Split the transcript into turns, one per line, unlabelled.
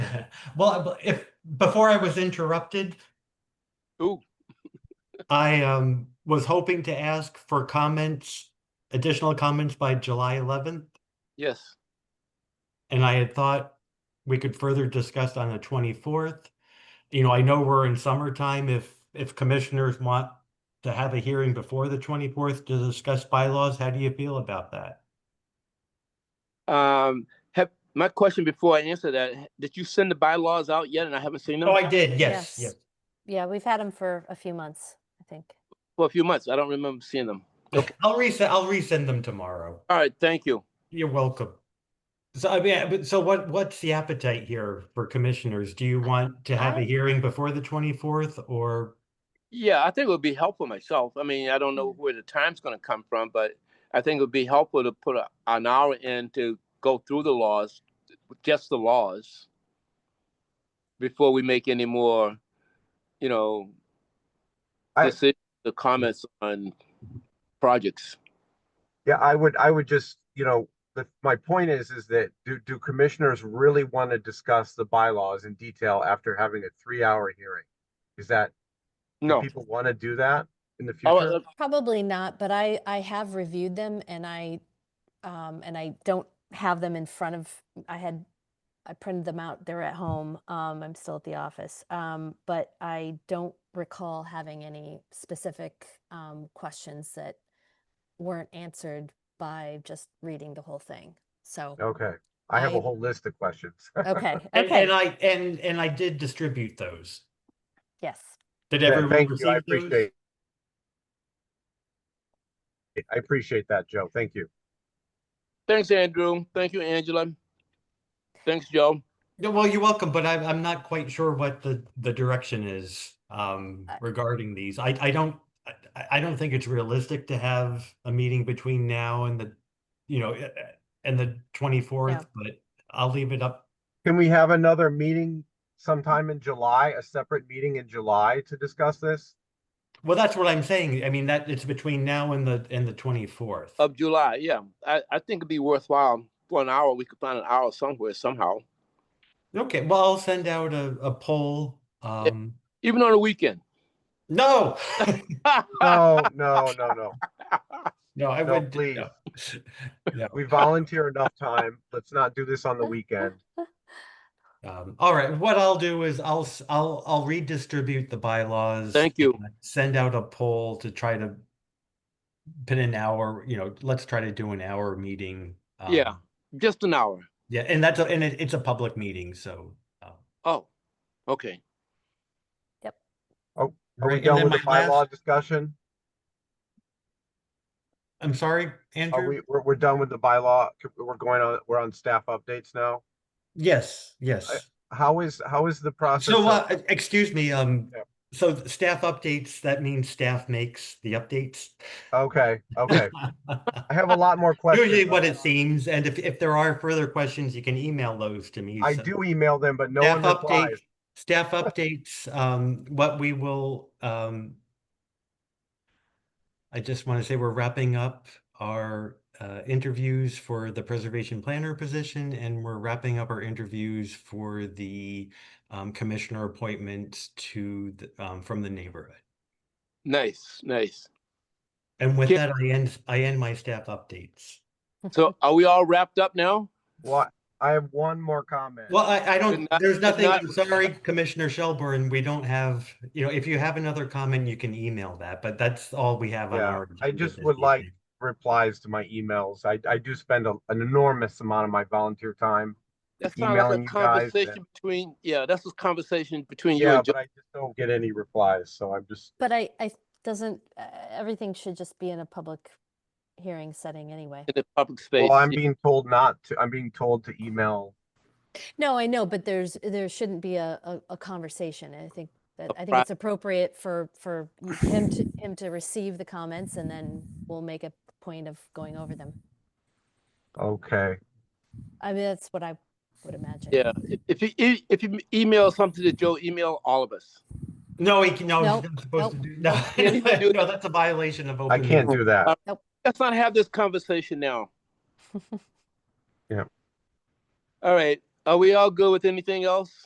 Well, if, before I was interrupted,
Ooh,
I um was hoping to ask for comments, additional comments by July eleventh.
yes,
And I had thought we could further discuss on the twenty-fourth. You know, I know we're in summertime. If, if commissioners want to have a hearing before the twenty-fourth to discuss bylaws, how do you feel about that?
um, have, my question before I answer that, h- did you send the bylaws out yet and I haven't seen them?
Oh, I did, yes, yes.
Yes. Yeah, we've had them for a few months, I think.
For a few months, I don't remember seeing them.
I'll resend, I'll resend them tomorrow.
All right, thank you.
You're welcome. So I mean, but so what, what's the appetite here for commissioners? Do you want to have a
I-
hearing before the twenty-fourth or?
Yeah, I think it would be helpful myself. I mean, I don't know
Mm-hmm.
where the time's gonna come from, but I think it would be helpful to put a- an hour in to go through the laws, just the laws, before we make any more, you know,
I-
decisions, the comments on projects.
Yeah, I would, I would just, you know, the, my point is, is that do, do commissioners really want to discuss the bylaws in detail after having a three-hour hearing? Is that, do
No.
people want to do that in the
Oh,
future?
uh,
Probably not, but I, I have reviewed them and I, um, and I don't have them in front of, I had, I printed them out, they're at home, um, I'm still at the office. Um, but I don't recall having any specific, um, questions that weren't answered by just reading the whole thing. So,
Okay, I have a
I-
whole list of questions.
okay,
And, and
okay,
I, and, and I did distribute those.
yes.
Did
Yeah,
everyone
Thank
receive
you, I
those?
appreciate. I appreciate that, Joe. Thank you.
Thanks, Andrew. Thank you, Angela. Thanks, Joe.
No, well, you're welcome, but I'm, I'm not quite sure what the, the direction is, um,
I-
regarding these. I, I don't, I- I, I don't think it's realistic to have a meeting between now and the, you know, eh, eh, and the twenty-fourth, but I'll leave it up.
Can we have another meeting sometime in July, a separate meeting in July to discuss this?
Well, that's what I'm saying. I mean, that it's between now and the, and the twenty-fourth.
Uh,
Of July, yeah. I, I think it'd be worthwhile for an hour. We could find an hour somewhere somehow,
Okay, well, I'll send out a, a poll. Um,
even on a weekend.
no,
No, no, no, no.
no, I
No,
would.
please.
no. No.
We volunteer enough time. Let's not do this on the weekend.
Um, all right, what I'll do is I'll, s- I'll, I'll redistribute the bylaws.
Thank you.
and Send out a poll to try to pin an hour, you know, let's try to do an hour meeting.
Yeah.
um,
Just an hour.
Yeah, and that's, a- and it, it's a public meeting, so. uh,
Oh, okay.
Are
right,
we
and
done
then
with the
my last-
bylaw discussion?
I'm sorry,
Are
Andrew?
we, we're, we're done with the bylaw? We're going on, we're on staff updates now?
Yes, yes.
How is, how is the process?
So,
of-
uh, e- excuse me, um,
Yeah.
so th- staff updates, that means staff makes the updates.
Okay, okay. I have a lot more questions.
Usually
but
what it seems, and if, if there are further questions, you can email those to me.
I
so-
do email them, but no
Staff
one
update,
replies.
staff updates, um, what we will, um, I just want to say we're wrapping up our, uh, interviews for the preservation planner position and we're wrapping up our interviews for the, um, commissioner appointments to, the- um, from the neighborhood.
Nice, nice.
And with
Ki-
that, I end, I end my staff updates.
So are we all wrapped up now?
What? I have one more comment.
Well, I, I don't,
night-
there's
good
nothing,
night.
I'm sorry, Commissioner Shelburne, we don't have, you know, if you have another comment, you can email that, but that's all we have on
Yeah,
our.
I
agenda
just
this
would like-
evening.
Replies to my emails. I, I do spend a- an enormous amount of my volunteer time.
That sounds like
Emailing
a
you guys that-
conversation between, yeah, that's a conversation between you
Yeah,
and Joe.
but I just don't get any replies, so I'm just,
But I, I, doesn't, uh, everything should just be in a public hearing setting anyway.
in the public space.
well, I'm being told not to, I'm being told to email.
No, I know, but there's, there shouldn't be a, a, a conversation. I think that,
A
I think
pri-
it's appropriate for, for m- him to, him to receive the comments and then we'll make a point of going over them.
Okay.
I mean, that's what I would imagine.
Yeah, if- if you, e- if you email something to Joe, email all of us.
No, he, can- no,
Nope,
he's not supposed to
nope.
do, no,
Can't even do
no, that's a violation of.
I
open
can't
meeting.
do that.
Let's not have this conversation now.
Yeah.
All right, are we all good with anything else?